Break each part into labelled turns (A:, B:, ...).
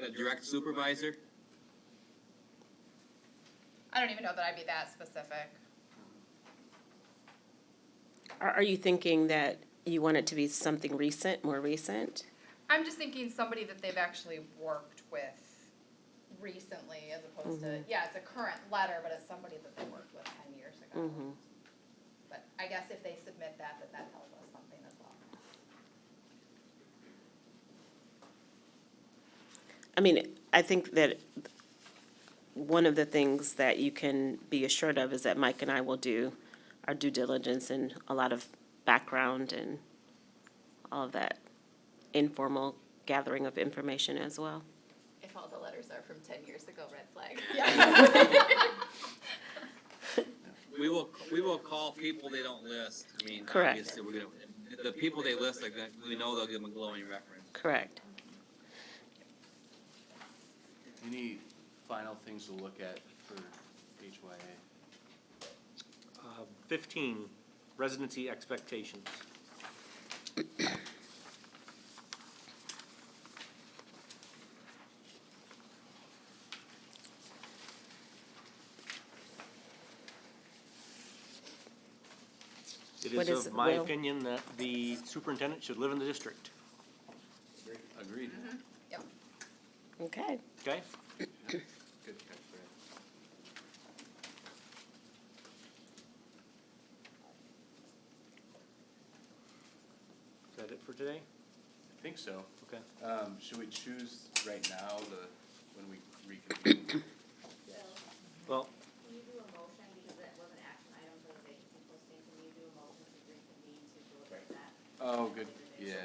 A: the direct supervisor?
B: I don't even know that I'd be that specific.
C: Are, are you thinking that you want it to be something recent, more recent?
B: I'm just thinking somebody that they've actually worked with recently as opposed to, yeah, it's a current letter, but it's somebody that they worked with ten years ago. But I guess if they submit that, that that tells us something as well.
C: I mean, I think that one of the things that you can be assured of is that Mike and I will do our due diligence and a lot of background and all of that informal gathering of information as well.
D: If all the letters are from ten years ago, red flag.
A: We will, we will call people they don't list. I mean,
C: Correct.
A: obviously, we're gonna, the people they list, like, that, we know they'll give them a glowing reference.
C: Correct.
E: Any final things to look at for HYA?
F: Uh, Fifteen, residency expectations. It
C: What
F: is
C: is-
F: of my
C: well-
F: opinion that the superintendent should live in the district,
E: Agreed.
B: Yep.
C: Okay.
F: okay?
E: Good catch, Brad.
F: Is that it for today?
E: I think so.
F: Okay.
E: Um, should we choose right now the, when we reconvene?
F: Well,
G: Can you do a motion, because that was an action item for the vacancy posting, can you do a motion to reconvene to deliberate that?
E: Oh, good, yeah.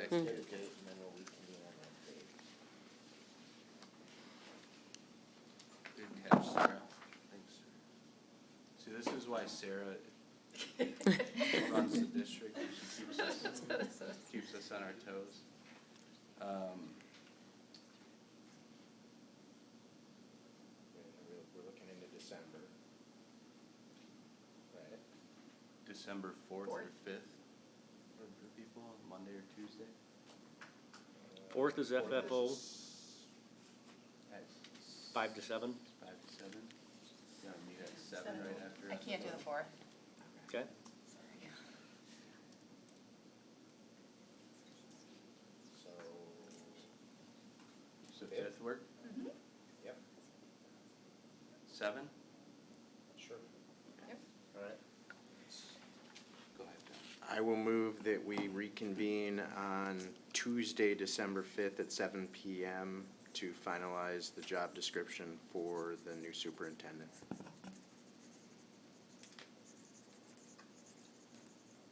E: Good catch, Sarah. Thanks. See, this is why Sarah runs the district, and she keeps us, keeps us on our toes. Um,
H: We're looking into December. Right?
E: December fourth or fifth, for for people, Monday or Tuesday?
F: fourth is FFO,
E: At
F: five to seven,
E: Five to seven? Gonna meet at seven right after.
B: I can't do the fourth.
F: okay?
B: Sorry.
H: So,
E: So fifth work,
H: yep,
E: seven?
H: sure.
B: Yep.
H: Alright.
E: Go ahead, John.
H: I will move that we reconvene on Tuesday, December fifth at seven PM to finalize the job description for the new superintendent.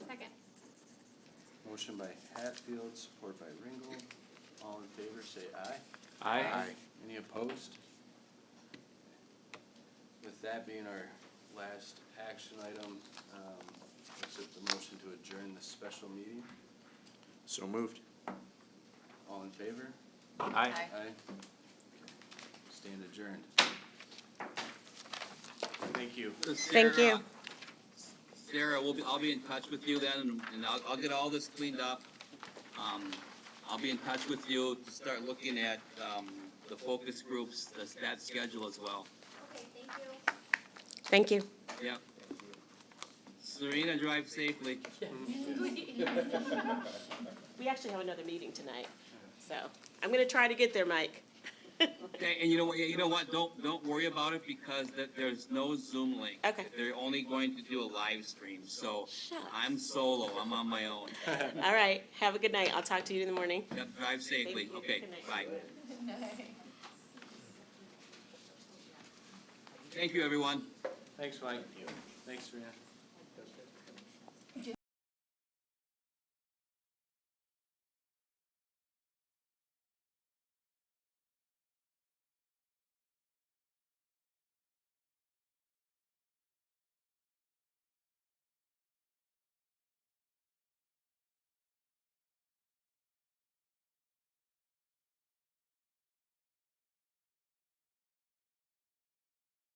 D: Second.
E: Motion by Hatfield, support by Ringel. All in favor, say aye. Any opposed? With that being our last action item, um, accept the motion to adjourn this special meeting.
H: So moved.
E: All in favor?
F: Aye.
B: Aye.
E: Aye. Stand adjourned. Thank you.
C: Thank
A: Sarah,
C: you.
A: Sarah, we'll be, I'll be in touch with you then, and- and I'll, I'll get all this cleaned up. Um, I'll be in touch with you to start looking at, um, the focus groups, the that schedule as well.
G: Okay, thank you.
C: Thank you.
A: Yep. Serena, drive safely.
C: We actually have another meeting tonight, so I'm gonna try to get there, Mike.
A: Okay, And you know what, you know what, don't, don't worry about it because th there's no Zoom link.
C: Okay.
A: They're only going to do a live stream, so
C: Shucks.
A: I'm solo, I'm on my own.
C: All right, have a good night. I'll talk to you in the morning.
A: Yep, drive safely,
C: Thank you.
A: okay,
C: Good night.
A: bye. Thank you, everyone.
E: Thanks, Mike. Thanks, Serena.